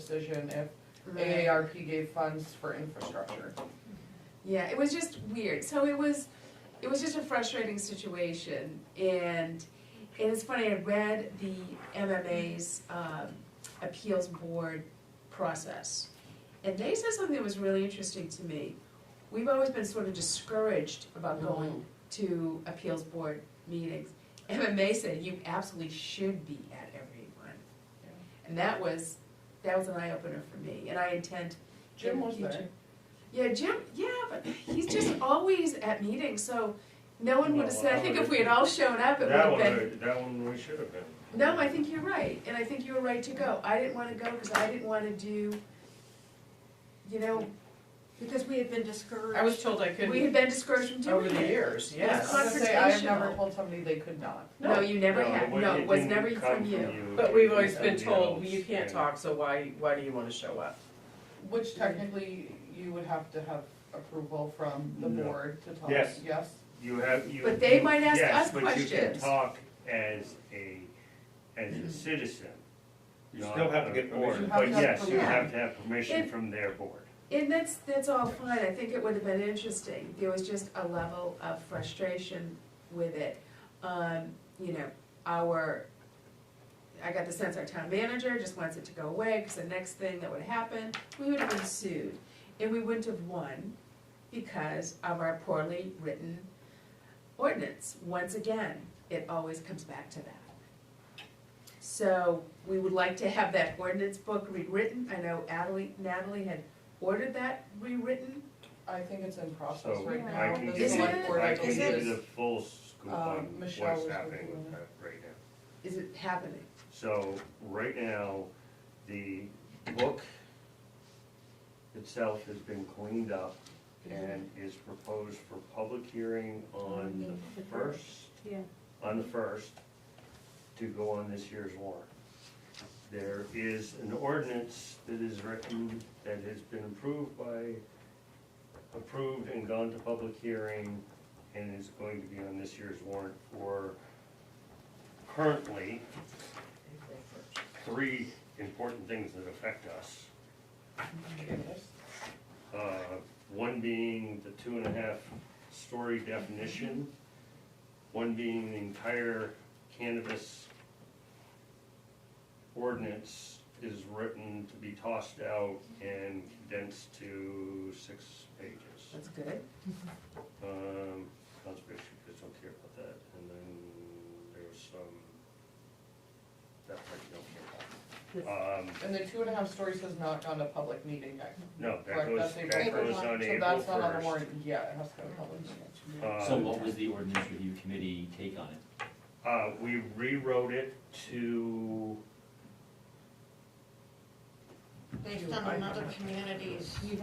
decision if Right. AARP gave funds for infrastructure. Yeah, it was just weird. So it was, it was just a frustrating situation, and and it's funny. I read the MMA's um, appeals board process, and they said something that was really interesting to me. We've always been sort of discouraged about going to appeals board meetings. MMA said you absolutely should be at every one, and that was that was an eye opener for me. And I intend Jim was Future. there. Yeah, Jim, yeah, but he's just always at meetings, so no one would have said, I think if we had all shown up, it would That have one, been. we- that one we should have been. No, I think you're right, and I think you were right to go. I didn't wanna go because I didn't wanna do, you know, Because we had been discouraged. I was told I we had couldn't been discouraged from over doing the it. I years, was yes. gonna say, I have never Confrontational. told somebody they could not. No, you never No, had, it wa- no, it it was didn't never come from you. But we've It always was been somebody told, else, you can't and- talk, so why, why do you wanna show up? Which technically, you would have to have approval from the No. board to talk, Yes. yes? You have, you. But they you- might ask yes, us But you can questions. talk as a, as a citizen. You not still have to a get board, permission. But You have to have yes, you permission. have to have permission If- from their board. And that's, that's all fine, I think it would have been interesting, there was just a level of frustration with it. Um, you know, our, I got the sense our town manager just wants it to go away, cause the next thing that would happen, we would have been sued. And we wouldn't have won because of our poorly written ordinance, once again, it always comes back to that. So we would like to have that ordinance book rewritten. I know Natalie, Natalie had ordered that rewritten. I think it's in process So right Yeah. I now. can The give you, select board, I I can believe, give is- you the full scoop Uh, um, on what's Michelle was happening working with on that right now. Is it happening? So, right now, the book itself has been cleaned up and is proposed for public hearing on the first, Yeah. on the first, to go on this year's warrant. There is an ordinance that is written, that has been approved by, approved and gone to public hearing, and is going to be on this year's warrant for currently, three important things that affect us. Uh, One being the two and a half story definition, one being the entire cannabis ordinance is written to be tossed out and condensed to six pages. That's good. Um, Conservation just don't care about that, and then there's some, that part you don't care about. Um, And the two and a half stories has not gone to public meeting yet. No, that Correct, goes, that's April that goes one. on So April that's not on the first. warrant, yeah, it has to go to public meeting. So Uh, what was the ordinance review committee take on it? uh, we rewrote it to, Based on another community's. we- we-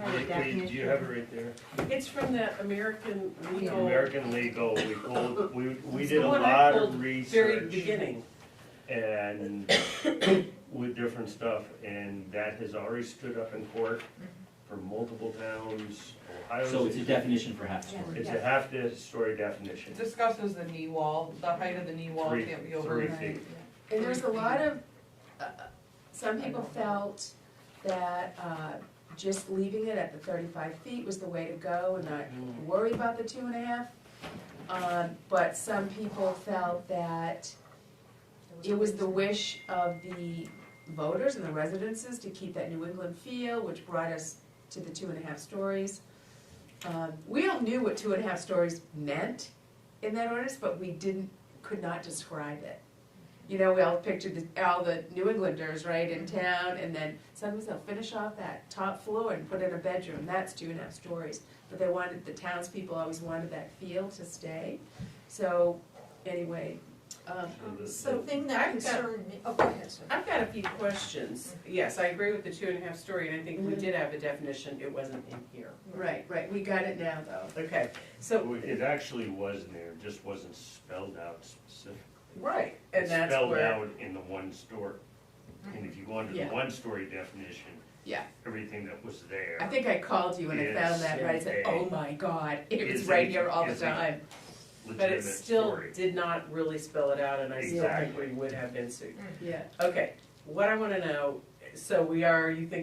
do you have it right there? It's from the American legal, American Legal, we pulled, we, we It's did the a one I lot pulled of very research beginning. and with different stuff, and that has already stood up in court Mm-hmm. for multiple towns, Ohio. So it's a definition for half Yeah. story. It's a half-story definition, It discusses the knee wall, the height of the knee wall Three- can't be over. three feet. And there was a lot of, uh, some people felt that uh, just leaving it at the thirty-five feet was the way to go and not Mm-hmm. worry about the two and a half. Um, But some people felt that it was the wish of the voters and the residences to keep that New England feel, which brought us to the two and a half stories. Um, We all knew what two and a half stories meant in that ordinance, but we didn't, could not describe it. You know, we all pictured the- all the New Englanders, right, in town, and then sometimes they'll finish off that top floor and put in a bedroom, that's two and a half stories. But they wanted, the townspeople always wanted that feel to stay, so, anyway, um, The thing that I've got- concerned me, oh, go ahead, sir. I've got a few questions. Yes, I agree with the two and a half story, and I think we Mhm. did have a definition, it wasn't in here. Right, right, we got it now, though. Okay, so, It actually was in there, it just wasn't spelled out specifically. right, and It's that's spelled where, out in the one story. And if you go under the Yeah. one-story definition, Yeah, everything that was there. I think I called you when I found that, right, I said, oh my god, it was right here all the time. but it legitimate still story. did not really spell it out, and I still think Exactly. we would have been sued. Yeah, Okay, what I wanna know, so we are, you think